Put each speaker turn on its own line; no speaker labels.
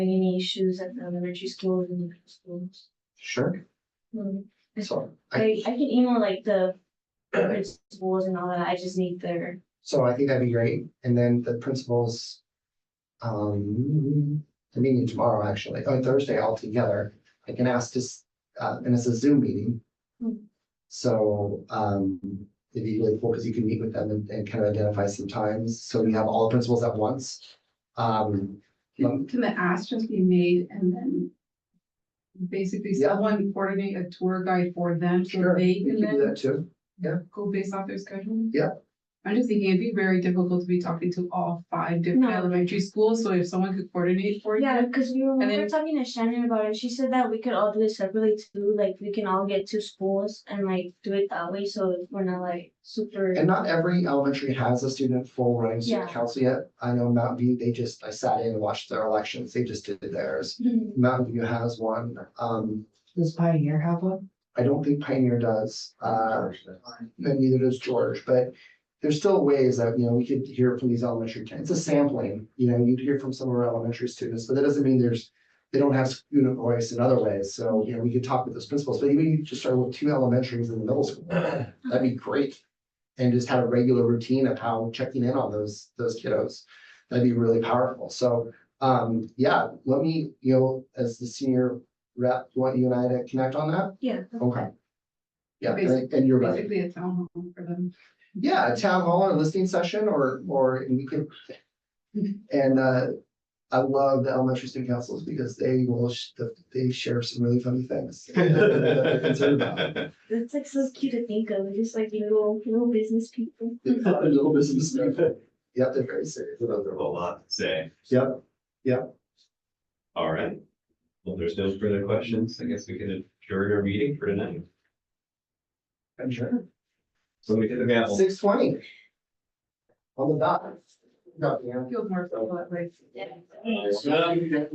any issues at the elementary schools and middle schools.
Sure,
Um,
so I,
I, I can email like the principals and all that, I just need their,
so I think that'd be great, and then the principals. Um, the meeting tomorrow, actually, on Thursday altogether, I can ask this, uh, and it's a Zoom meeting.
Hmm.
So, um, it'd be really cool, because you can meet with them and, and kind of identify some times, so you have all the principals at once. Um,
Can, can the ask just be made and then basically
Yeah.
someone coordinate a tour guide for them so
Sure,
they
you
can
can do
then
that too,
go based off their schedule?
Yeah.
I'm just thinking it'd be very difficult to be talking to all five different
No.
elementary schools, so if someone could coordinate for you.
yeah, cause we were, we
And
were
then-
talking to Shannon about it, she said that we could all do it separately too, like we can all get to schools and like do it that way, so we're not like super.
and not every elementary has a student full running student
Yeah.
council yet, I know Mountain View, they just, I sat in and watched their elections, they just did theirs.
Mhm.
Mountain View has one, um,
Does Pioneer have one?
I don't think Pioneer does, uh, and neither does George, but. There's still ways that, you know, we could hear from these elementary, kids. it's a sampling, you know, you'd hear from some of our elementary students, but that doesn't mean there's. They don't have student voice in other ways, so, you know, we could talk with those principals, but even if you just started with two elementaries in the middle school, that'd be great. And just have a regular routine of how checking in on those, those kiddos, that'd be really powerful, so. Um, yeah, let me, you know, as the senior rep, you want you and I to connect on that?
Yeah.
Okay. Yeah, and and you're right.
Basically a town hall for them.
Yeah, a town hall or listening session or, or and we could. And, uh, I love the elementary student councils because they will, sh- they share some really funny things. that they're concerned about.
That's like so cute to think of, just like little, little business people.
A little business. Yeah, they're very serious about their
A
role.
lot to say.
Yep, yep.
All right. Well, there's no further questions. I guess we can adjourn our meeting for tonight.
I'm sure.
So we hit the gavel.
Six twenty. On the dot. No, yeah.
Feels more fun that way.
Yeah.
Yeah.